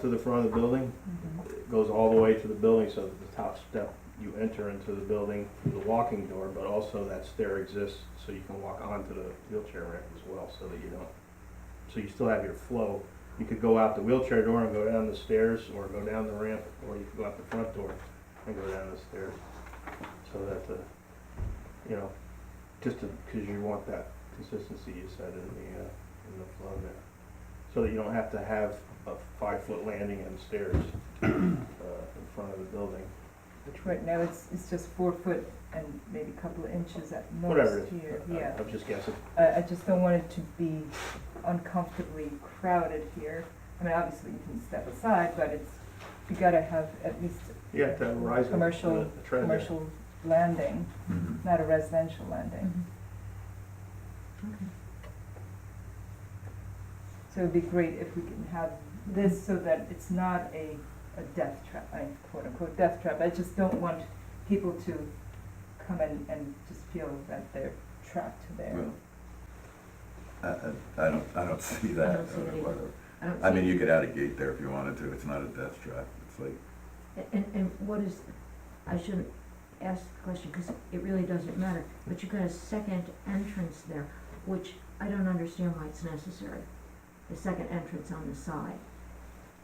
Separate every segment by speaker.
Speaker 1: to the front of the building,
Speaker 2: Mm-hmm.
Speaker 1: it goes all the way to the building, so that the top step, you enter into the building through the walking door, but also that stair exists, so you can walk onto the wheelchair ramp as well, so that you don't, so you still have your flow. You could go out the wheelchair door and go down the stairs, or go down the ramp, or you could go out the front door and go down the stairs. So that the, you know, just to, because you want that consistency you said in the, uh, in the flow there. So that you don't have to have a five-foot landing and stairs uh, in front of the building.
Speaker 2: Right now, it's, it's just four foot and maybe a couple of inches at
Speaker 1: Whatever it
Speaker 2: most
Speaker 1: is.
Speaker 2: here,
Speaker 1: I-
Speaker 2: yeah.
Speaker 1: I'm just guessing.
Speaker 2: I, I just don't want it to be uncomfortably crowded here. I mean, obviously you can step aside, but it's, you gotta have at least
Speaker 1: Yeah, to rise in
Speaker 2: Commercial-
Speaker 1: the- the trend there.
Speaker 2: commercial landing,
Speaker 3: Mhm.
Speaker 2: not a residential landing.
Speaker 4: Mm-hmm.
Speaker 2: So it'd be great if we can have this so that it's not a, a death trap, I quote unquote death trap. I just don't want people to come in and just feel that they're trapped there.
Speaker 3: Well, I, I, I don't, I don't see that.
Speaker 4: I don't see it either.
Speaker 3: Whatever.
Speaker 4: I don't
Speaker 3: I mean,
Speaker 4: see-
Speaker 3: you could add a gate there if you wanted to, it's not a death trap, it's like,
Speaker 4: And, and what is, I shouldn't ask the question, cause it really doesn't matter, but you got a second entrance there, which I don't understand why it's necessary. The second entrance on the side.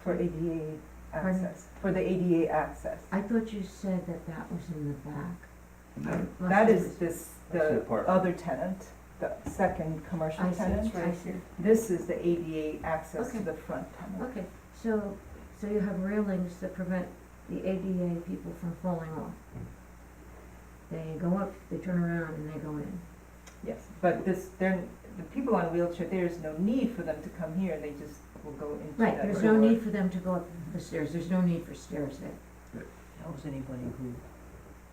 Speaker 2: For ADA
Speaker 4: Pardon?
Speaker 2: access, for the ADA access.
Speaker 4: I thought you said that that was in the back.
Speaker 3: no,
Speaker 4: Unless
Speaker 2: That
Speaker 4: it
Speaker 2: is
Speaker 4: was-
Speaker 2: this,
Speaker 1: That's the
Speaker 2: the
Speaker 1: apartment.
Speaker 2: other tenant, the second commercial
Speaker 4: I see,
Speaker 2: tenant.
Speaker 4: I see.
Speaker 2: This is the ADA access to
Speaker 4: Okay.
Speaker 2: the front tenant.
Speaker 4: Okay, so, so you have railings that prevent the ADA people from falling off. They go up, they turn around and they go in.
Speaker 2: Yes, but this, they're, the people on wheelchair, there's no need for them to come here, they just will go into that.
Speaker 4: Right, there's no
Speaker 2: door.
Speaker 4: need for them to go up the stairs, there's no need for stairs there.
Speaker 5: How's anybody who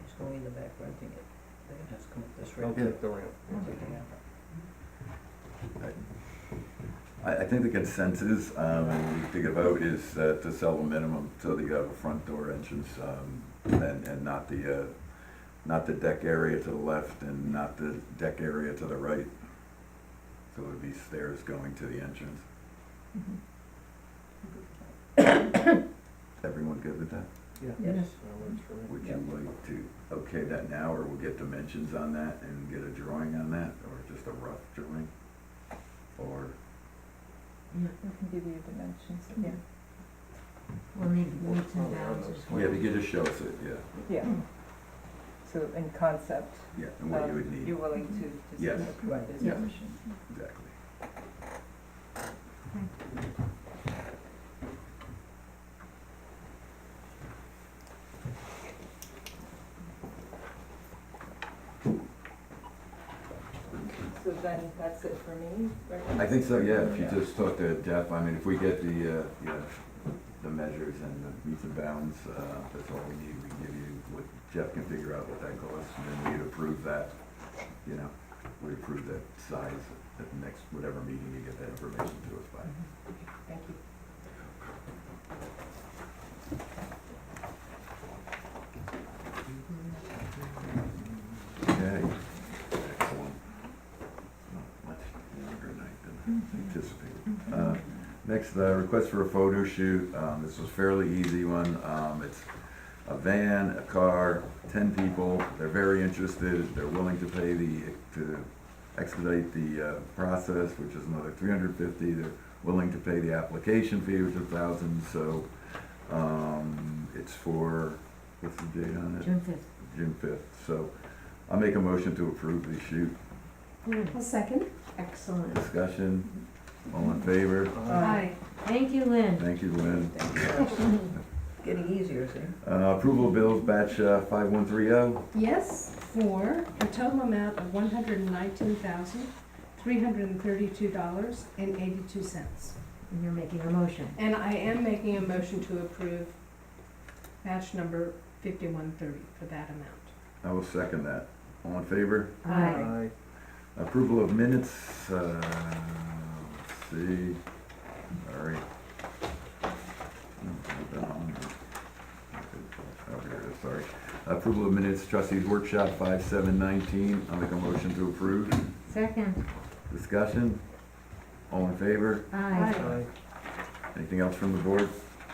Speaker 5: is going in the back renting it, they have to come up this
Speaker 1: Don't
Speaker 5: road?
Speaker 1: take the ramp.
Speaker 3: I, I think the consensus, um, and we take a vote is uh, to sell the minimum, so that you have a front door entrance, um, and, and not the, uh, not the deck area to the left and not the deck area to the right. So it would be stairs going to the entrance,
Speaker 2: Mm-hmm.
Speaker 3: everyone good with that?
Speaker 5: Yes.
Speaker 1: That works for me.
Speaker 3: Would you like to okay that now, or we'll get dimensions on that and get a drawing on that, or just a rough drawing? Or,
Speaker 4: Yeah,
Speaker 2: We can give you dimensions, yeah,
Speaker 4: Mm-hmm. we'll need meets and
Speaker 1: Probably around
Speaker 4: bounds
Speaker 1: those
Speaker 4: as well.
Speaker 3: yeah, but you just show us it, yeah,
Speaker 2: yeah. So in concept,
Speaker 3: yeah, and what you would
Speaker 2: um, you're
Speaker 3: need,
Speaker 2: willing
Speaker 4: Mm-hmm.
Speaker 2: to
Speaker 3: Yes.
Speaker 2: just approve
Speaker 5: Right.
Speaker 2: this
Speaker 3: Yeah.
Speaker 2: motion.
Speaker 3: exactly.
Speaker 2: So then that's it for me, right?
Speaker 3: I think so, yeah, if you
Speaker 2: Yeah.
Speaker 3: just talk to Jeff, I mean, if we get the, uh, yeah, the measures and the meets and bounds, uh, that's all we need, we can give you, what, Jeff can figure out what that costs, and then we'd approve that, you know, we approve that size at the next, whatever meeting you get that information to us by.
Speaker 2: Thank you.
Speaker 3: Okay, excellent. Not much longer night than I
Speaker 4: Mm-hmm.
Speaker 3: anticipated. Uh, Next, uh request for a photo shoot. Um, This was fairly easy one. Um, It's a van, a car, ten people. They're very interested. They're willing to pay the, to expedite the uh, process, which is another three hundred fifty. They're willing to pay the application fee, which is a thousand, so um, it's for, what's the date on it?
Speaker 4: June fifth.
Speaker 3: June fifth, so I'll make a motion to approve the shoot.
Speaker 4: Good,
Speaker 5: second.
Speaker 4: excellent.
Speaker 3: Discussion, all in favor?
Speaker 2: Aye.
Speaker 3: uh,
Speaker 4: Thank you, Lynn.
Speaker 3: Thank you, Lynn.
Speaker 5: Getting easier, see?
Speaker 3: Uh, approval of bills batch uh, five one three oh,
Speaker 6: Yes, for a total amount of one hundred and nineteen thousand, three hundred and thirty-two dollars and eighty-two cents.
Speaker 4: And you're making a motion.
Speaker 6: And I am making a motion to approve batch number fifty-one thirty for that amount.
Speaker 3: I will second that. All in favor?
Speaker 4: Aye.
Speaker 1: Aye.
Speaker 3: Approval of minutes, uh, let's see, all right. Oh, here it is, sorry. Approval of minutes, trustees workshop five seven nineteen, I'll make a motion to approve.
Speaker 4: Second,
Speaker 3: Discussion, all in favor?
Speaker 4: aye.
Speaker 1: Aye.
Speaker 3: Anything else from the board?